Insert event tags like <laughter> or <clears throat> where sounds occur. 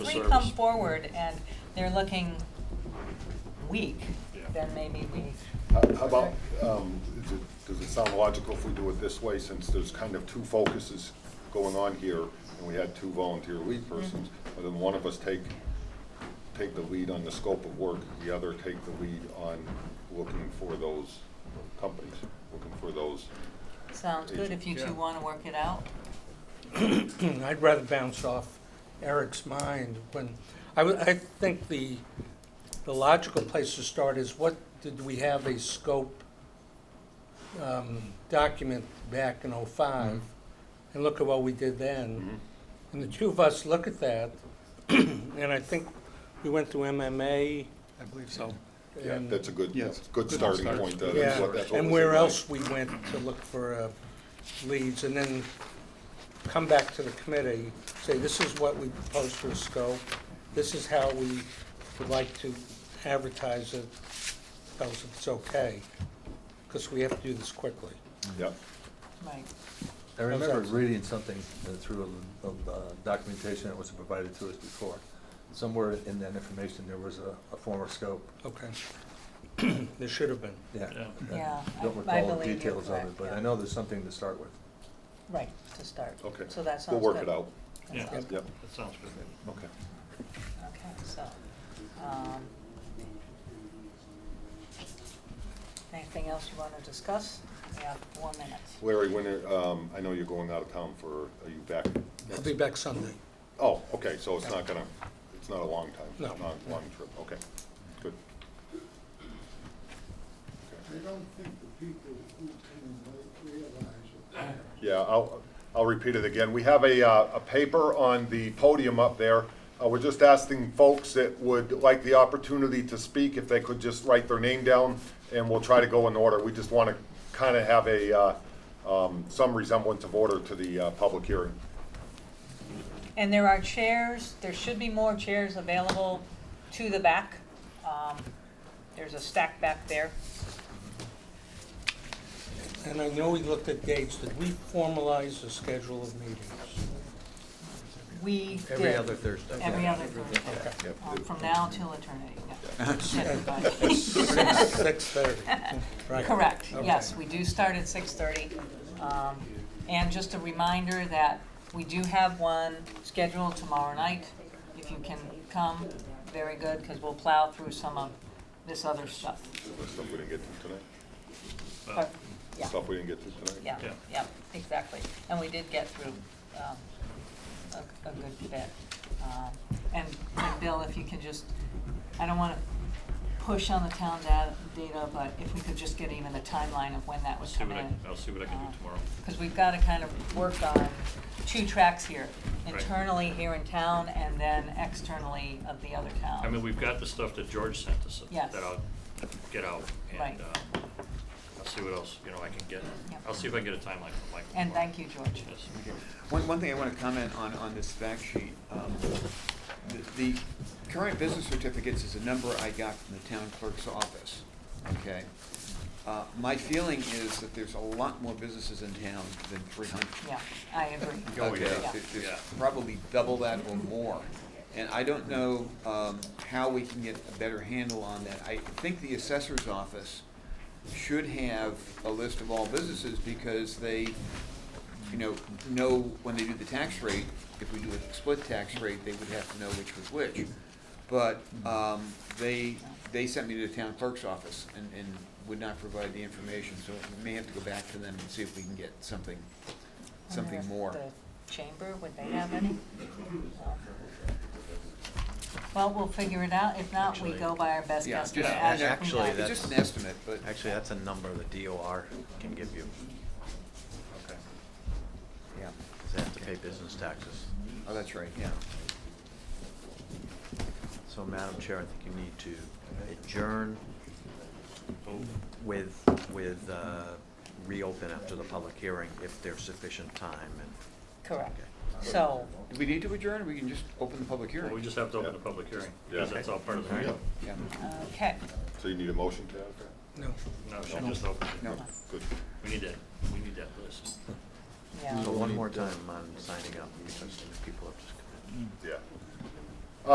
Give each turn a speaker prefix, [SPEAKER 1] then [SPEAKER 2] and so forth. [SPEAKER 1] Three
[SPEAKER 2] service.
[SPEAKER 1] come forward and they're looking weak,
[SPEAKER 2] Yeah.
[SPEAKER 1] then maybe we,
[SPEAKER 3] How how about, um, is it- does it sound logical if we do it this way, since there's kind of two focuses going on here, and we had two volunteer lead
[SPEAKER 1] Mm-hmm.
[SPEAKER 3] persons, but then one of us take, take the lead on the scope of work, the other take the lead on looking for those companies, looking for those,
[SPEAKER 1] sounds good if you
[SPEAKER 2] Yeah.
[SPEAKER 1] two want to work it out.
[SPEAKER 4] <clears throat> I'd rather bounce off Eric's mind when, I, would- I think the, the logical place to start is what, did we have a scope um, document back in '05? And look at what we did then. And the two of us look at that, <clears throat> and I think we went through MMA
[SPEAKER 5] I believe so.
[SPEAKER 3] yeah,
[SPEAKER 4] and.
[SPEAKER 3] that's a good,
[SPEAKER 5] Yes.
[SPEAKER 3] good
[SPEAKER 5] Good
[SPEAKER 3] starting
[SPEAKER 5] start.
[SPEAKER 3] point. uh, that's
[SPEAKER 4] Yeah,
[SPEAKER 3] what- that's what
[SPEAKER 4] and
[SPEAKER 3] was
[SPEAKER 4] where
[SPEAKER 3] in mind.
[SPEAKER 4] else we went to look for uh, leads, and then come back to the committee, say, this is what we propose for a scope, this is how we would like to advertise it, tell us if it's okay, because we have to do this quickly.
[SPEAKER 3] Yeah,
[SPEAKER 1] Right.
[SPEAKER 5] I remember
[SPEAKER 4] How's that?
[SPEAKER 5] reading something uh, through the the documentation that was provided to us before. Somewhere in that information, there was a, a former scope,
[SPEAKER 4] Okay. <clears throat> There should have been.
[SPEAKER 5] yeah.
[SPEAKER 2] Yeah.
[SPEAKER 5] I
[SPEAKER 1] Yeah, I-
[SPEAKER 5] Don't
[SPEAKER 1] I
[SPEAKER 5] recall the
[SPEAKER 1] believe you're
[SPEAKER 5] details of
[SPEAKER 1] correct,
[SPEAKER 5] it, but
[SPEAKER 1] yeah.
[SPEAKER 5] I know there's something to start with.
[SPEAKER 1] Right, to start.
[SPEAKER 3] okay.
[SPEAKER 1] So that sounds
[SPEAKER 3] We'll
[SPEAKER 1] good.
[SPEAKER 3] work it out,
[SPEAKER 1] That
[SPEAKER 2] Yeah,
[SPEAKER 1] sounds
[SPEAKER 4] Yep.
[SPEAKER 1] good.
[SPEAKER 3] yeah,
[SPEAKER 2] that sounds good.
[SPEAKER 3] okay.
[SPEAKER 1] Okay, so, um, anything else you want to discuss? We have four minutes.
[SPEAKER 3] Larry, when, are- um, I know you're going out of town for, are you back?
[SPEAKER 4] I'll
[SPEAKER 3] next
[SPEAKER 4] be back Sunday.
[SPEAKER 3] Oh, okay, so it's not gonna, it's not a long time?
[SPEAKER 4] No.
[SPEAKER 3] Not a long trip, okay, good.
[SPEAKER 6] I don't think the people who came late realize it.
[SPEAKER 3] Yeah, I'll, I'll repeat it again. We have a, uh, a paper on the podium up there. Uh, we're just asking folks that would like the opportunity to speak, if they could just write their name down, and we'll try to go in order. We just wanna kinda have a, uh, um, some resemblance of order to the, uh, public hearing.
[SPEAKER 1] And there are chairs, there should be more chairs available to the back. Um, There's a stack back there.
[SPEAKER 4] And I know we looked at dates, did we formalize the schedule of meetings?
[SPEAKER 1] We did.
[SPEAKER 7] Every other Thursday.
[SPEAKER 1] Every other Thursday.
[SPEAKER 4] Okay.
[SPEAKER 1] Um, From now till eternity. yeah. Everybody.
[SPEAKER 4] Six, six thirty, right.
[SPEAKER 1] Correct,
[SPEAKER 4] Okay.
[SPEAKER 1] yes, we do start at six thirty. Um, And just a reminder that we do have one scheduled tomorrow night. If you can come, very good, because we'll plow through some of this other stuff.
[SPEAKER 3] Stuff we didn't get to tonight,
[SPEAKER 1] But, yeah.
[SPEAKER 3] stuff we didn't get to tonight.
[SPEAKER 1] Yeah,
[SPEAKER 2] Yeah.
[SPEAKER 1] yeah, exactly. And we did get through um, a a good bit. Um, And and Bill, if you can just, I don't want to push on the town da- data, but if we could just get even the timeline of when that
[SPEAKER 2] I'll
[SPEAKER 1] was
[SPEAKER 2] see
[SPEAKER 1] coming
[SPEAKER 2] what I,
[SPEAKER 1] in.
[SPEAKER 2] I'll see what I can do tomorrow.
[SPEAKER 1] Because we've got to kind of work on two tracks here,
[SPEAKER 2] Right.
[SPEAKER 1] internally here in town and then externally of the other towns.
[SPEAKER 2] I mean, we've got the stuff that George sent us.
[SPEAKER 1] Yes.
[SPEAKER 2] That I'll get out
[SPEAKER 1] Right.
[SPEAKER 2] and, uh, I'll see what else, you know, I can get.
[SPEAKER 1] Yep.
[SPEAKER 2] I'll see if I can get a timeline from Michael.
[SPEAKER 1] And
[SPEAKER 2] tomorrow.
[SPEAKER 1] thank you, George.
[SPEAKER 2] Yes.
[SPEAKER 7] One, one thing I want to comment on, on this fact sheet, um, the, the current business certificates is a number I got from the town clerk's office, okay? Uh, my feeling is that there's a lot more businesses in town than three hundred.
[SPEAKER 1] Yeah, I agree.
[SPEAKER 2] Oh,
[SPEAKER 7] Okay,
[SPEAKER 2] yeah.
[SPEAKER 7] there-
[SPEAKER 2] Yeah.
[SPEAKER 7] there's probably double that or more. And I don't know um, how we can get a better handle on that. I think the assessor's office should have a list of all businesses because they, you know, know when they do the tax rate, if we do a split tax rate, they would have to know which was which. But um, they, they sent me to the town clerk's office and, and would not provide the information. So we may have to go back to them and see if we can get something,
[SPEAKER 1] I wonder
[SPEAKER 7] something
[SPEAKER 1] if
[SPEAKER 7] more.
[SPEAKER 1] The chamber, would they have any? No. Well, we'll figure it out. If not, we
[SPEAKER 8] Actually-
[SPEAKER 1] go by our best
[SPEAKER 7] Yeah,
[SPEAKER 1] guess.
[SPEAKER 7] just-
[SPEAKER 1] as we
[SPEAKER 8] actually,
[SPEAKER 1] go.
[SPEAKER 7] It's
[SPEAKER 8] that's-
[SPEAKER 7] just an estimate, but.
[SPEAKER 8] Actually, that's a number the DOR can give you,
[SPEAKER 2] Okay.
[SPEAKER 7] Yeah.
[SPEAKER 8] 'cause they have to pay business taxes.
[SPEAKER 7] Oh, that's right, yeah.
[SPEAKER 8] So Madam Chair, I think you need to adjourn with, with, uh, reopen after the public hearing if there's sufficient time and.
[SPEAKER 1] Correct.
[SPEAKER 8] Okay.
[SPEAKER 1] So,
[SPEAKER 7] Do we need to adjourn, or we can just open the public
[SPEAKER 2] Well,
[SPEAKER 7] hearing?
[SPEAKER 2] we just have to open the public hearing, because
[SPEAKER 3] Yeah.
[SPEAKER 2] that's all part of the
[SPEAKER 8] Okay.
[SPEAKER 2] deal.
[SPEAKER 7] Yeah.
[SPEAKER 1] okay.
[SPEAKER 3] So you need a motion to have that?
[SPEAKER 4] No.
[SPEAKER 2] No, she just opened it.
[SPEAKER 7] No.
[SPEAKER 3] Good.
[SPEAKER 2] We need that, we need that list.
[SPEAKER 1] Yeah.
[SPEAKER 8] So one more time on signing up because people have just come in.
[SPEAKER 3] Yeah.